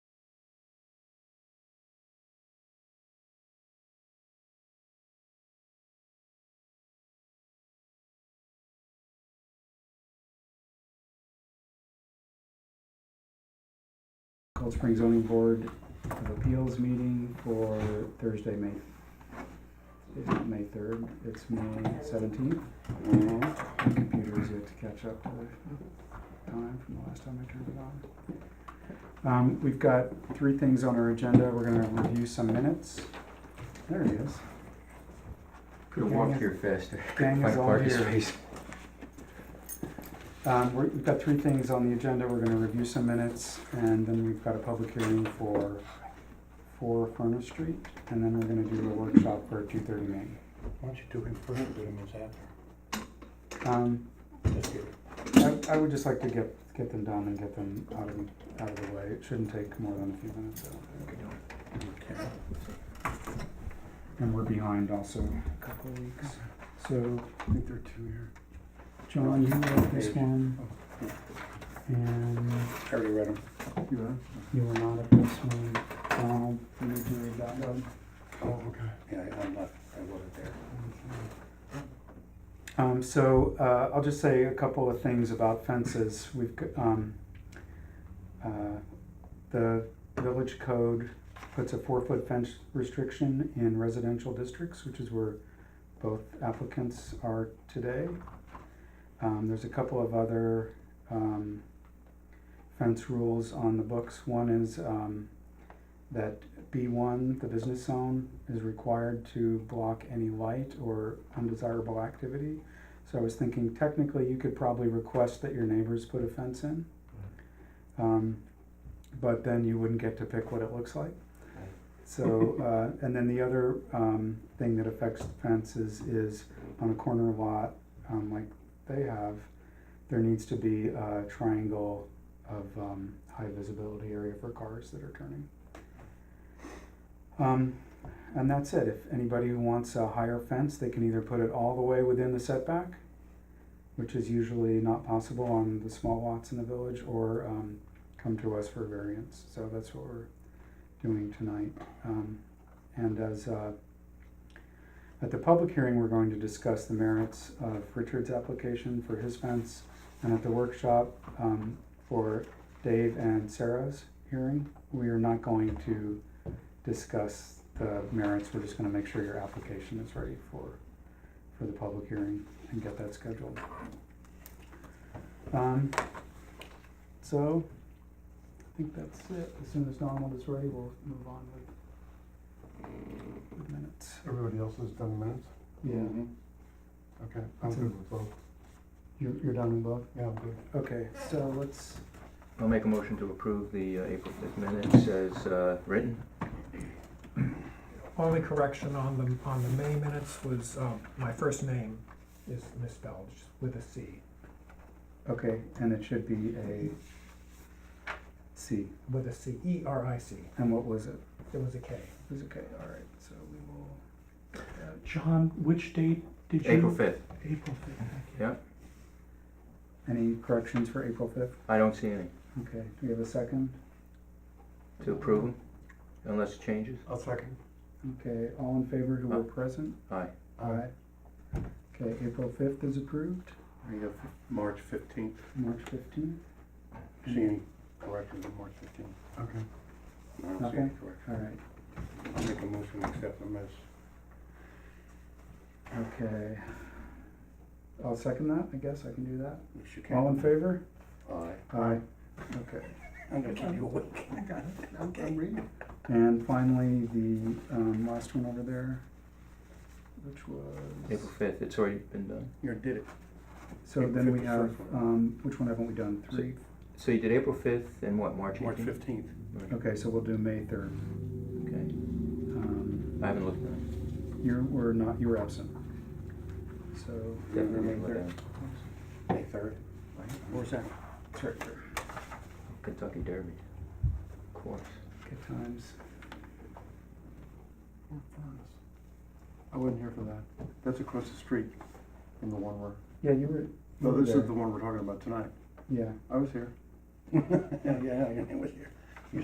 Cold Spring Zoning Board of Appeals meeting for Thursday, May, is it May third? It's May seventeenth. My computer is yet to catch up to the time from the last time I turned it on. Um, we've got three things on our agenda. We're gonna review some minutes. There it is. Could have walked here faster. Gang Couldn't is find a all parking here. space. Um, we're- we've got three things on the agenda, we're gonna review some minutes, and then we've got a public hearing for, for Furnace Street, and then we're gonna do a workshop for two thirty Main. Why don't you do him first and do the minutes after? Um, Just get- I, I would just like to get, get them done and get them out of, out of the way, it shouldn't take more than a few minutes. I don't think. And we're behind also a couple of weeks, so, I think there are two here. John, you wrote this one, Oh. and I already read them. You read them? you were not at this one, Donald, you need to read that one. Oh, okay. Yeah, I- I'm not, I wasn't there. Um, so, uh, I'll just say a couple of things about fences. We've, g- um, uh, the village code puts a four-foot fence restriction in residential districts, which is where both applicants are today. Um, there's a couple of other, um, fence rules on the books. One is, um, that B one, the business zone, is required to block any light or undesirable activity. So I was thinking technically you could probably request that your neighbors put a fence in. Um, but then you wouldn't get to pick what it looks like. So, uh, and then the other, um, thing that affects fences is on a corner lot, um, like they have, there needs to be a triangle of, um, high visibility area for cars that are turning. Um, and that's it. If anybody who wants a higher fence, they can either put it all the way within the setback, which is usually not possible on the small lots in the village, or um, come to us for variance. So that's what we're doing tonight. Um, and as uh, at the public hearing, we're going to discuss the merits of Richard's application for his fence, and at the workshop um, for Dave and Sarah's hearing, we are not going to discuss the merits, we're just gonna make sure your application is ready for, for the public hearing and get that scheduled. Um, so, I think that's it, as soon as Donald is ready, we'll move on with, with minutes. Everybody else has done minutes? Yeah, Okay, I'm good with both. you're, you're done with both? Yeah, I'm good. Okay, so let's, I'll make a motion to approve the uh, April fifth minutes as uh, written. Only correction on the, on the May minutes was, um, my first name is misspelled just with a C, okay, and it should be a C, with a C, E R I C. and what was it? It was a K. It was okay, all right, so we will, get that. John, which date did you? April fifth, April fifth, thank you. yeah. any corrections for April fifth? I don't see any Okay, do we have a second? to approve 'em, unless it changes. I'll second. Okay, all in favor who were present? Aye. Oh. Aye. Okay, April fifth is approved, We have March fifteenth. March fifteenth. See any corrections on March fifteenth? Okay. I don't see any Nothing? corrections. All right, I'll make a motion to accept them as, okay. I'll second that, I guess I can do that. if you All in can. favor? Aye. Aye. Okay. I'm gonna keep you awake. Okay. And finally, the, um, last one over there, which was, April fifth, it's already been done. You did it. so April then we 5th have, is first one. um, which one haven't we done? So- Three? So you did April fifth and what, March March eighteenth? fifteenth. Okay, so we'll do May third. Okay, Um, I haven't looked at you were not, you were absent. So. it. Definitely look at it. May third. Where's that? Director. Kentucky Derby, of course. Good times. I wasn't here for that. That's across the street from the one we're, Yeah, you were. you no, were Oh, this is there. the one we're talking about tonight. Yeah, I was here. Yeah, yeah, I was here.